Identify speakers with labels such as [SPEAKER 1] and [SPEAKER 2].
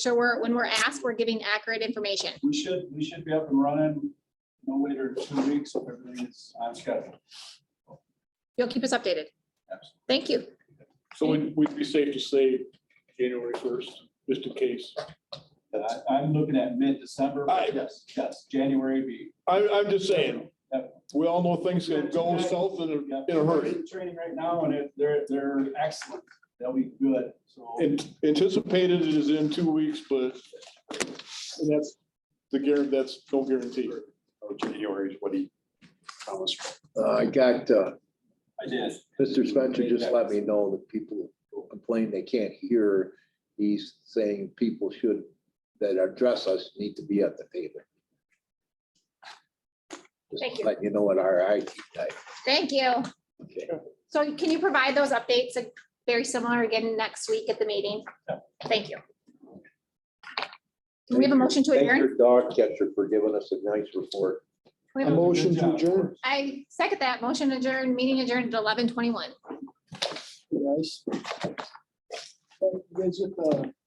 [SPEAKER 1] sure we're, when we're asked, we're giving accurate information.
[SPEAKER 2] We should, we should be up and running no later than two weeks if everything is on schedule.
[SPEAKER 1] You'll keep us updated.
[SPEAKER 2] Absolutely.
[SPEAKER 1] Thank you.
[SPEAKER 3] So would, would it be safe to say January first, just in case?
[SPEAKER 2] But I, I'm looking at mid-December, but
[SPEAKER 3] Aye.
[SPEAKER 2] yes, yes, January be.
[SPEAKER 3] I, I'm just saying,
[SPEAKER 2] Yep.
[SPEAKER 3] we all know things can go south in a, in a hurry.
[SPEAKER 2] In Training right now and it- they're, they're excellent. They'll be good, so.
[SPEAKER 3] An- Anticipated it is in two weeks, but and that's the guarantee, that's no guarantee.
[SPEAKER 4] January is what he promised.
[SPEAKER 5] Uh, I got, uh,
[SPEAKER 2] I did.
[SPEAKER 5] Mr. Spencer just let me know that people who complain they can't hear. He's saying people should, that address us need to be at the table.
[SPEAKER 1] Thank you.
[SPEAKER 5] Let you know what our IT type.
[SPEAKER 1] Thank you.
[SPEAKER 5] Okay.
[SPEAKER 1] So can you provide those updates uh, very similar again next week at the meeting? Thank you. Do we have a motion to
[SPEAKER 5] Thank
[SPEAKER 1] adjourn?
[SPEAKER 5] your dog catcher for giving us a nice report.
[SPEAKER 1] We
[SPEAKER 3] A
[SPEAKER 1] have a-
[SPEAKER 3] motion to adjourn.
[SPEAKER 1] I second that. Motion adjourned, meeting adjourned at eleven twenty-one.
[SPEAKER 6] Guys. Uh, you guys get the